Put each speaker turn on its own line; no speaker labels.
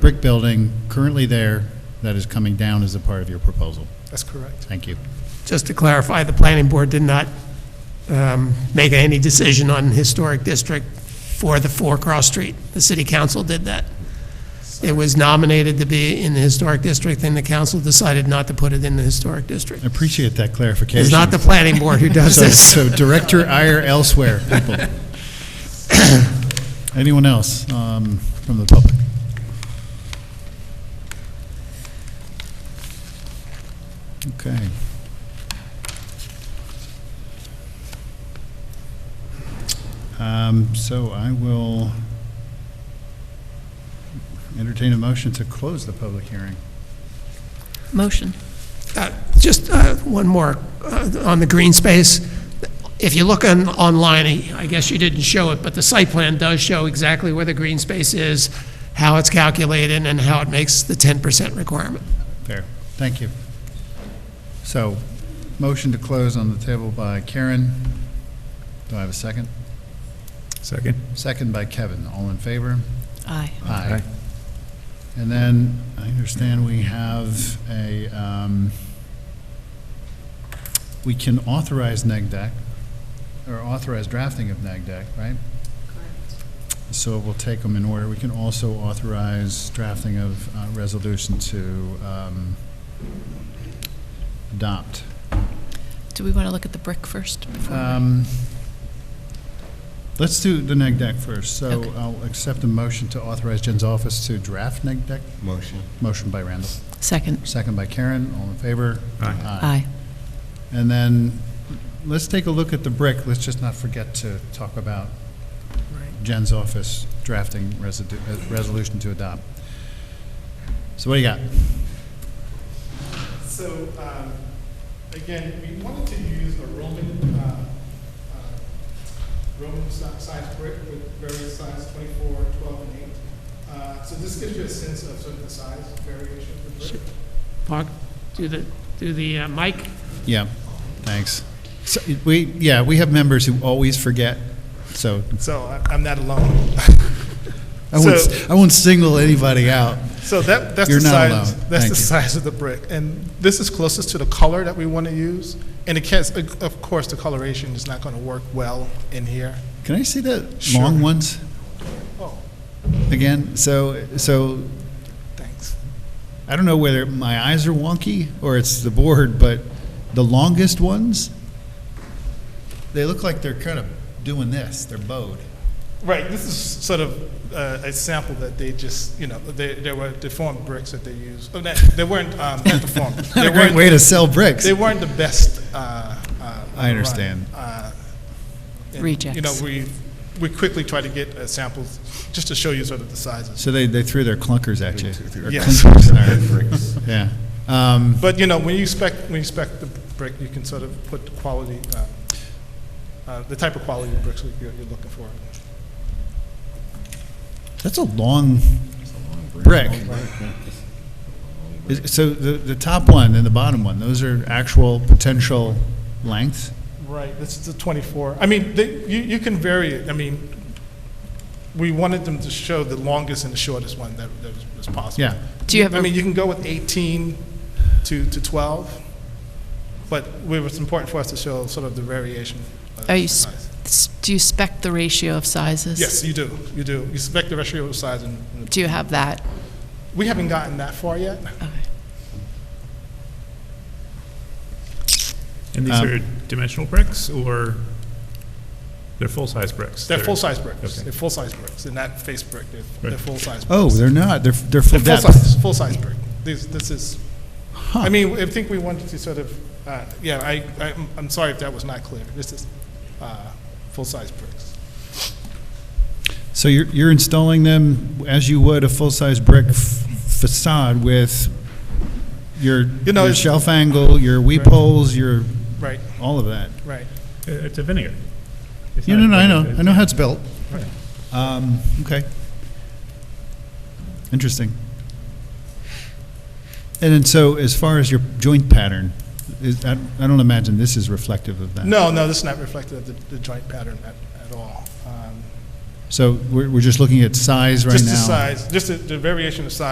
brick building currently there that is coming down as a part of your proposal.
That's correct.
Thank you.
Just to clarify, the planning board did not um, make any decision on historic district for the four cross street. The city council did that. It was nominated to be in the historic district, and the council decided not to put it in the historic district.
I appreciate that clarification.
It's not the planning board who does
So,
this.
so direct your ire elsewhere, people. Anyone else um, from the public? Okay. Um, So I will entertain a motion to close the public hearing.
Motion.
Uh, Just uh, one more uh, on the green space. If you look on, online, I guess you didn't show it, but the site plan does show exactly where the green space is, how it's calculated, and how it makes the 10% requirement.
Fair. Thank you. So, motion to close on the table by Karen. Do I have a second?
Second.
Second by Kevin. All in favor?
Aye.
Aye. And then, I understand we have a, um, we can authorize neg deck, or authorize drafting of neg deck, right? So we'll take them in order. We can also authorize drafting of uh, resolution to um, adopt.
Do we want to look at the brick first? before-
Um, Let's do the neg deck first. So
Okay.
I'll accept a motion to authorize Jen's office to draft neg deck.
Motion.
Motion by Randall,
Second.
second by Karen, all in favor?
Aye.
Aye.
And then, let's take a look at the brick, let's just not forget to talk about Jen's office drafting residu- uh, resolution to adopt. So what do you got?
So, um, again, we wanted to use a Roman, uh, uh, Roman si- size brick with various sizes, 24, 12, and 8. Uh, So this gives you a sense of sort of the size variation of the brick.
Mark, do the, do the uh, mic.
Yeah, thanks. So, we, yeah, we have members who always forget, so
So I- I'm not alone.
I won't,
So-
I won't single anybody out.
So that, that's
You're
the
not
size,
alone.
that's
Thank
the
you.
size of the brick. And this is closest to the color that we want to use. And it can, of course, the coloration is not going to work well in here.
Can I see the
Sure.
long ones
Oh,
again? So, so
thanks.
I don't know whether my eyes are wonky or it's the board, but the longest ones, they look like they're kind of doing this. They're bowed.
Right, this is sort of uh, a sample that they just, you know, they, there were deformed bricks that they used. Oh, that, they weren't, um, not deformed.
Not
They
a great
weren't-
way to sell bricks.
They weren't the best. uh, uh,
I understand.
run, uh, and, You know,
Rejects.
we, we quickly try to get uh, samples just to show you sort of the sizes.
So they, they threw their clunkers at you. Or
Yes.
clunkers, sorry. Yeah. Um,
But, you know, when you spec, when you spec the brick, you can sort of put the quality, uh, uh, the type of quality of bricks you're, you're looking for.
that's a long brick. Is- So the, the top one and the bottom one, those are actual potential lengths?
Right, this is the 24. I mean, they, you, you can vary it. I mean, we wanted them to show the longest and the shortest one that, that was- was possible.
Yeah.
Do you have
I
a-
mean, you can go with 18 to, to 12, but we- it's important for us to show sort of the variation. of
Are you, s-
size.
s- do you spec the ratio of sizes?
Yes, you do, you do. You expect the ratio of size and, and the-
Do you have that?
we haven't gotten that far yet.
Okay.
And these
Um,
are dimensional bricks, or they're Uh, full-size bricks?
They're full-size bricks.
Okay.
They're full-size bricks. They're not face brick. They're, they're
Right.
full-size.
Oh,
bricks.
they're not. They're, they're full
They're
depth.
full-size, full-size brick. This, this is, I mean, I think we wanted to sort of, uh, yeah, I, I'm- I'm sorry if that was not clear. This is uh, full-size bricks.
So you're, you're installing them as you would a full-size brick f- facade with your,
You know,
your
it's-
shelf angle, your weep holes, your,
Right,
all of that.
right.
Uh, It's a vineyard. It's
You
not
know, no, I
a-
know, I know how it's built.
Right.
Um, okay. Interesting. And then so as far as your joint pattern, is, I, I don't imagine this is reflective of that.
No, no, this is not reflective of the- the joint pattern at, at all. Um,
So we're, we're just looking at size right now?
Just the size, just the- the variation of size